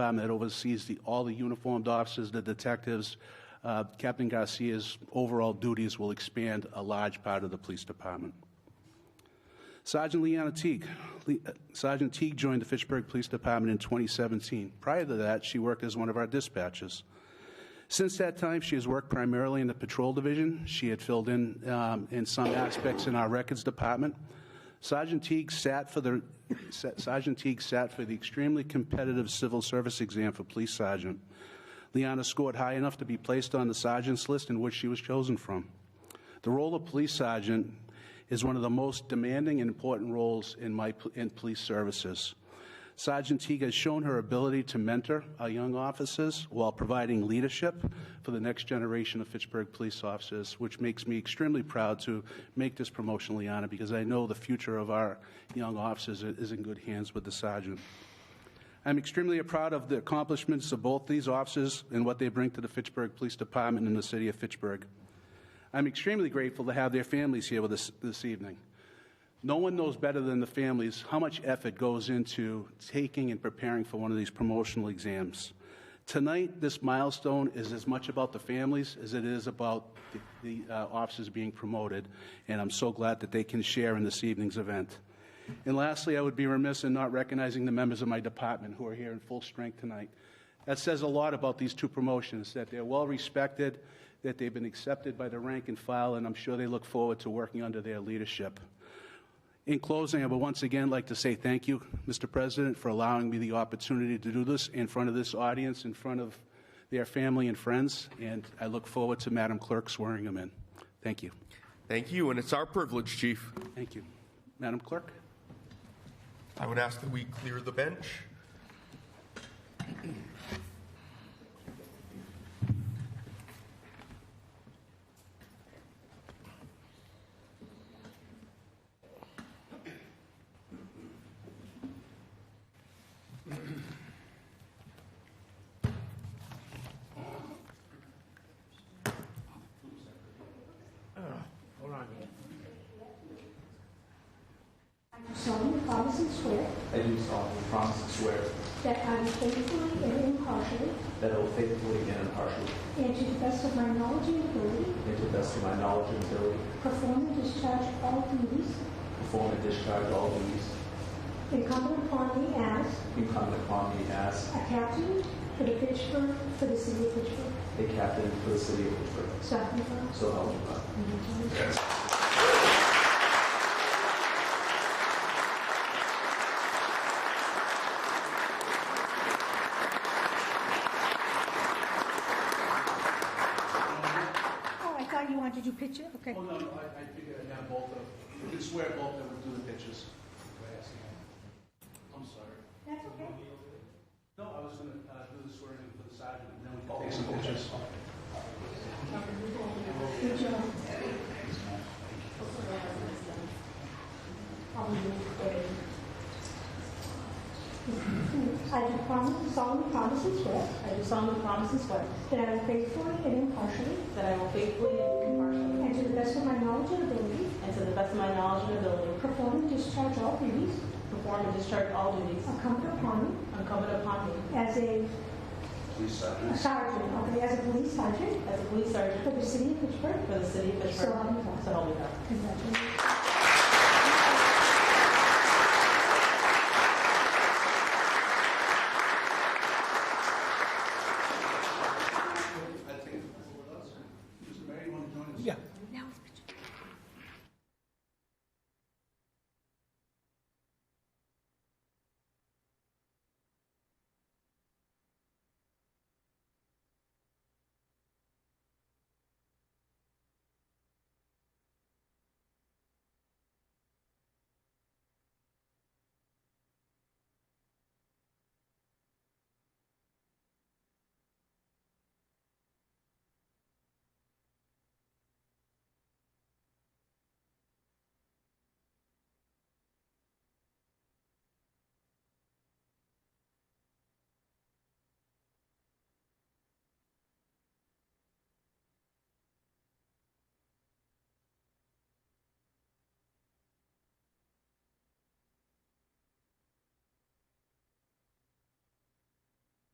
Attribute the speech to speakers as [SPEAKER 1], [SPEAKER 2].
[SPEAKER 1] Department that oversees the, all the uniformed officers, the detectives. Uh, Captain Garcia's overall duties will expand a large part of the police department. Sergeant Leanna Teague. Le- uh, Sergeant Teague joined the Fitchburg Police Department in 2017. Prior to that, she worked as one of our dispatchers. Since that time, she has worked primarily in the patrol division. She had filled in um, in some aspects in our records department. Sergeant Teague sat for the Sa- Sergeant Teague sat for the extremely competitive civil service exam for police sergeant. Leanna scored high enough to be placed on the sergeant's list in which she was chosen from. The role of police sergeant is one of the most demanding and important roles in my in police services. Sergeant Teague has shown her ability to mentor our young officers while providing leadership for the next generation of Fitchburg police officers, which makes me extremely proud to make this promotion, Liana, because I know the future of our young officers is in good hands with the sergeant. I'm extremely proud of the accomplishments of both these officers and what they bring to the Fitchburg Police Department and the city of Fitchburg. I'm extremely grateful to have their families here with us this evening. No one knows better than the families how much effort goes into taking and preparing for one of these promotional exams. Tonight, this milestone is as much about the families as it is about the, the uh, officers being promoted, and I'm so glad that they can share in this evening's event. And lastly, I would be remiss in not recognizing the members of my department who are here in full strength tonight. That says a lot about these two promotions, that they're well respected, that they've been accepted by the rank and file, and I'm sure they look forward to working under their leadership. In closing, I would once again like to say thank you, Mr. President, for allowing me the opportunity to do this in front of this audience, in front of their family and friends, and I look forward to Madam Clerk swearing them in. Thank you.
[SPEAKER 2] Thank you, and it's our privilege, Chief.
[SPEAKER 1] Thank you. Madam Clerk?
[SPEAKER 2] I would ask that we clear the bench.
[SPEAKER 3] solemnly promise and swear
[SPEAKER 4] I do solemnly promise and swear
[SPEAKER 3] that I will faithfully and impartially,
[SPEAKER 4] that I will faithfully and impartially,
[SPEAKER 3] and to the best of my knowledge and ability,
[SPEAKER 4] and to the best of my knowledge and ability,
[SPEAKER 3] perform and discharge all duties
[SPEAKER 4] perform and discharge all duties
[SPEAKER 3] incumbent upon me as
[SPEAKER 4] incumbent upon me as
[SPEAKER 3] a captain for the Pittsburgh, for the city of Pittsburgh.
[SPEAKER 4] a captain for the city of Pittsburgh.
[SPEAKER 3] So help me God.
[SPEAKER 4] So help me God.
[SPEAKER 3] Congratulations. Oh, I thought you wanted to do picture, okay.
[SPEAKER 1] Oh, no, I figured I'd have both of, we can swear both of them do the pictures. I'm sorry.
[SPEAKER 3] That's okay.
[SPEAKER 1] No, I was gonna uh, do the swearing for the sergeant, and then we can take some pictures.
[SPEAKER 3] Good job. I do promise, solemnly promise and swear
[SPEAKER 5] I do solemnly promise and swear
[SPEAKER 3] that I will faithfully and impartially,
[SPEAKER 5] that I will faithfully and impartially,
[SPEAKER 3] and to the best of my knowledge and ability,
[SPEAKER 5] and to the best of my knowledge and ability,
[SPEAKER 3] perform and discharge all duties
[SPEAKER 5] perform and discharge all duties
[SPEAKER 3] incumbent upon me
[SPEAKER 5] incumbent upon me
[SPEAKER 3] as a
[SPEAKER 1] Please,
[SPEAKER 3] a
[SPEAKER 1] sergeant.
[SPEAKER 3] sergeant, okay, as a police sergeant
[SPEAKER 5] as a police sergeant
[SPEAKER 3] for the city of Pittsburgh.
[SPEAKER 5] for the city of Pittsburgh.
[SPEAKER 3] So help me God.
[SPEAKER 5] So help me God.
[SPEAKER 3] Congratulations.